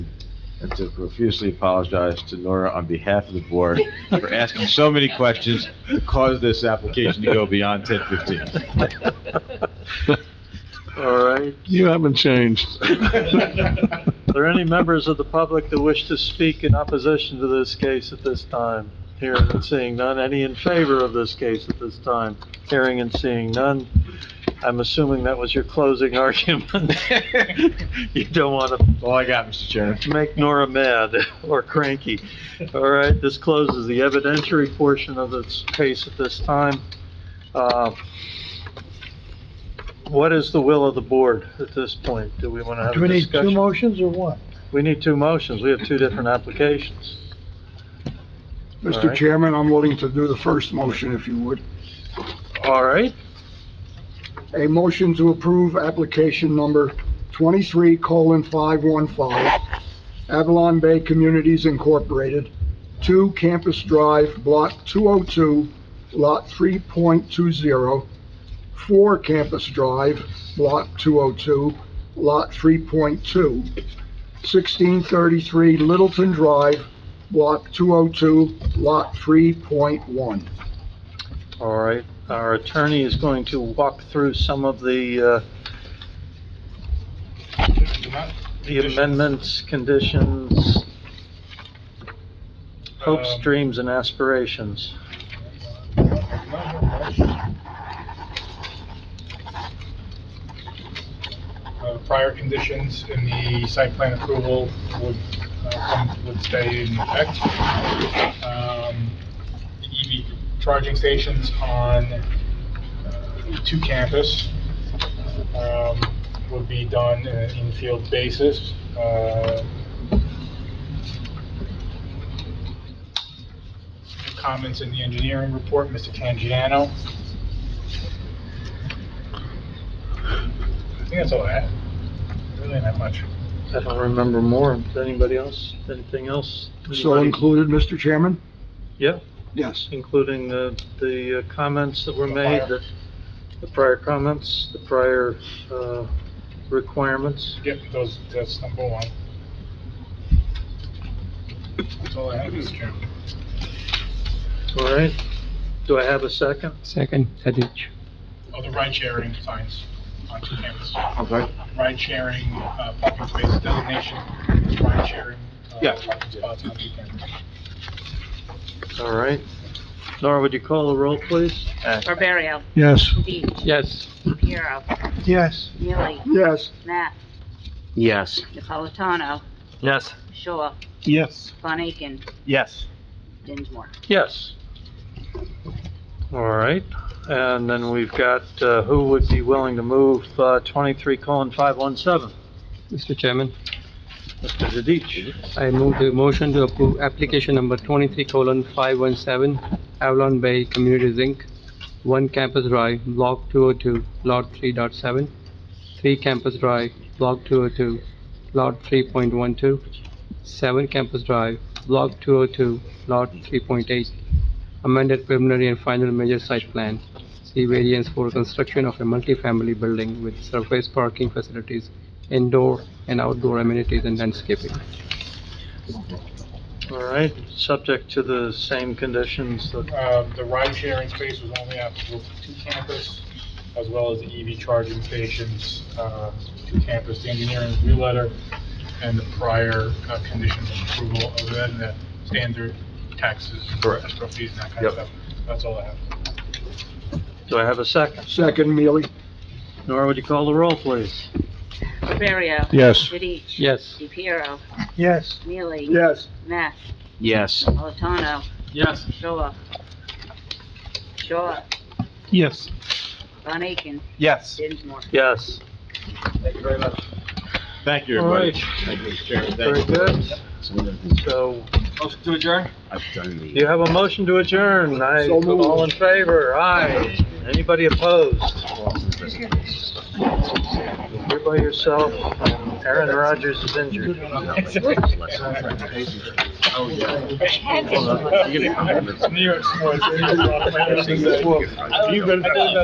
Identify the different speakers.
Speaker 1: and to profusely apologize to Nora on behalf of the board for asking so many questions that caused this application to go beyond ten fifteen.
Speaker 2: Uh,
Speaker 3: All right.
Speaker 4: You haven't changed.
Speaker 3: Are there any members of the public that wish to speak in opposition to this case at this time? Hearing and seeing none. Any in favor of this case at this time? Hearing and seeing none. I'm assuming that was your closing argument. You don't want to
Speaker 1: All I got, Mr. Chairman.
Speaker 3: make Nora mad or cranky. All right, this closes the evidentiary portion of this case at this time. Uh, What is the will of the board at this point? Do we want to have
Speaker 5: Do we
Speaker 3: a
Speaker 5: need two
Speaker 3: discussion?
Speaker 5: motions or what?
Speaker 3: We need two motions. We have two different applications. All
Speaker 6: Mr.
Speaker 3: right.
Speaker 6: Chairman, I'm willing to do the first motion if you would.
Speaker 3: All right,
Speaker 6: A motion to approve application number 23 colon 515, Avalon Bay Communities Incorporated, 2 Campus Drive, Block 202, Lot 3.20, 4 Campus Drive, Block 202, Lot 3.2, 1633 Littleton Drive, Block 202, Lot 3.1.
Speaker 3: all right. Our attorney is going to walk through some of the, uh, the amendments, conditions, hopes,
Speaker 2: Um,
Speaker 3: dreams, and aspirations.
Speaker 2: Uh, Prior conditions in the site plan approval would, uh, come- would stay in effect. Um, the EV charging stations on uh, two campus um, would be done in an in-field basis. Uh, Comments in the engineering report, Mr. Canjiano. I think that's all I have. Really not much.
Speaker 3: I don't remember more. Anybody else? Anything else?
Speaker 6: So
Speaker 3: Anybody?
Speaker 6: included, Mr. Chairman?
Speaker 3: Yeah,
Speaker 6: Yes.
Speaker 3: including the, the uh, comments that were
Speaker 2: The
Speaker 3: made,
Speaker 2: prior.
Speaker 3: the, the prior comments, the prior, uh, requirements.
Speaker 2: Yep, those, that's number one. That's all I have, Mr. Chairman.
Speaker 3: All right. Do I have a second?
Speaker 7: Second, Tadich.
Speaker 2: Oh, the ride-sharing signs on two campuses.
Speaker 1: Okay.
Speaker 2: Ride-sharing, uh, parking space designation, ride-sharing,
Speaker 1: Yeah.
Speaker 2: uh, parking spots on two campuses.
Speaker 3: All right. Nora, would you call the roll, please?
Speaker 8: Barbario,
Speaker 5: Yes.
Speaker 8: Deech,
Speaker 7: Yes.
Speaker 8: Piero,
Speaker 5: Yes.
Speaker 8: Neely,
Speaker 6: Yes.
Speaker 8: Matt,
Speaker 7: Yes.
Speaker 8: Napolitano,
Speaker 7: Yes.
Speaker 8: Shaw,
Speaker 5: Yes.
Speaker 8: Von Aiken,
Speaker 7: Yes.
Speaker 8: Dinsmore.
Speaker 3: Yes. All right. And then we've got, uh, who would be willing to move, uh, twenty-three colon five one seven?
Speaker 7: Mr. Chairman,
Speaker 3: Mr. Zadich.
Speaker 7: I move the motion to approve application number twenty-three colon five one seven, Avalon Bay Communities Inc., one campus drive, block two oh two, lot three dot seven, three campus drive, block two oh two, lot three point one two, seven campus drive, block two oh two, lot three point eight, amended preliminary and final major site plan, see variance for construction of a multifamily building with surface parking facilities, indoor and outdoor amenities and landscaping.
Speaker 3: All right, subject to the same conditions that
Speaker 2: Uh, the ride-sharing space was only applicable to two campus, as well as the EV charging stations, uh, to campus. The engineering review letter and the prior, uh, conditions of approval, other than the standard taxes,
Speaker 1: Correct.
Speaker 2: escrow fees, and that kind of
Speaker 1: Yep.
Speaker 2: stuff. That's all I have.
Speaker 3: Do I have a second?
Speaker 6: Second, Mealy?
Speaker 3: Nora, would you call the roll, please?
Speaker 8: Barbario,
Speaker 4: Yes.
Speaker 8: Deech,
Speaker 7: Yes.
Speaker 8: Piero,
Speaker 5: Yes.
Speaker 8: Neely,
Speaker 6: Yes.
Speaker 8: Matt,
Speaker 7: Yes.
Speaker 8: Napolitano,
Speaker 7: Yes.
Speaker 8: Shaw, Shaw,
Speaker 5: Yes.
Speaker 8: Von Aiken,
Speaker 7: Yes.
Speaker 8: Dinsmore.
Speaker 3: Yes.
Speaker 1: Thank you,
Speaker 3: All
Speaker 1: everybody.
Speaker 3: right.
Speaker 1: Thank you, Mr. Chairman.
Speaker 3: Very
Speaker 1: Thank you.
Speaker 3: good.
Speaker 1: Some of the things
Speaker 3: So
Speaker 1: I've done the-
Speaker 3: you have a motion to adjourn. I,
Speaker 6: So moved.
Speaker 3: all in favor? Aye. Anybody opposed? You're by yourself. Aaron Rodgers is injured.
Speaker 1: Oh, yeah.
Speaker 2: New York sports. You've been-